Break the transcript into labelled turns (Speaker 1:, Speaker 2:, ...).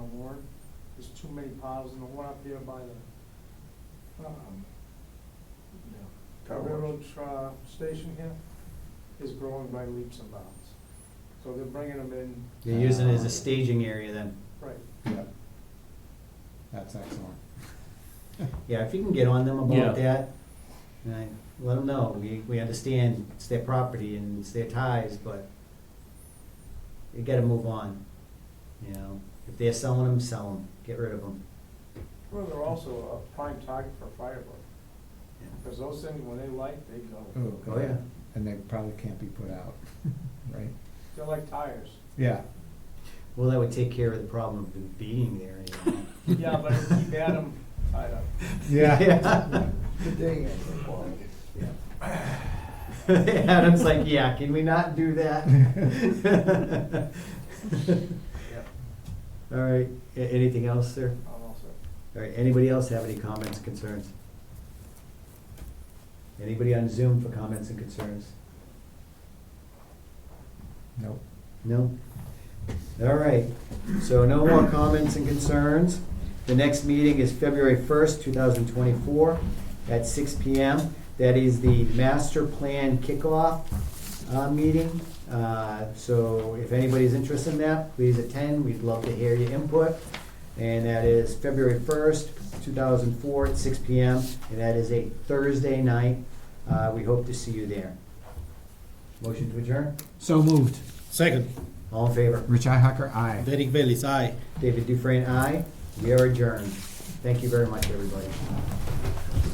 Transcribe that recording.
Speaker 1: too many piles, and the one up there by the, um, the
Speaker 2: Car wash.
Speaker 1: railroad, uh, station here is growing by leaps and bounds. So they're bringing them in,
Speaker 3: You're using it as a staging area then.
Speaker 1: right,
Speaker 2: Yeah. That's excellent.
Speaker 3: Yeah, if you can get on them
Speaker 4: Yeah.
Speaker 3: about that, and I- let them know, we, we understand it's their property and it's their ties, but you gotta move on, you know? If they're selling them, sell them, get rid of them.
Speaker 1: well, they're also a prime target for firebug, because those things, when they light, they go,
Speaker 2: Ooh,
Speaker 3: Oh, yeah.
Speaker 2: And they probably can't be put out, right?
Speaker 1: they're like tires.
Speaker 2: Yeah.
Speaker 3: Well, that would take care of the problem of them being there anyway.
Speaker 1: Yeah, but if you had them tied up.
Speaker 2: Yeah.
Speaker 3: Adam's like, yeah, can we not do that?
Speaker 1: Yep.
Speaker 3: All right, a- anything else, sir?
Speaker 1: I'm all set.
Speaker 3: All right, anybody else have any comments, concerns? Anybody on Zoom for comments and concerns?
Speaker 2: Nope.
Speaker 3: No? All right, so no more comments and concerns. The next meeting is February first, two thousand twenty-four, at six P M. That is the master plan kickoff, uh, meeting. Uh, so if anybody's interested in that, please attend, we'd love to hear your input. And that is February first, two thousand four, at six P M, and that is a Thursday night. Uh, we hope to see you there. Motion to adjourn?
Speaker 2: So moved.
Speaker 5: Second,
Speaker 3: All in favor?
Speaker 2: Rich Ihacker, aye.
Speaker 5: Derek Bailey's aye.
Speaker 3: David Dufresne, aye. We are adjourned. Thank you very much, everybody.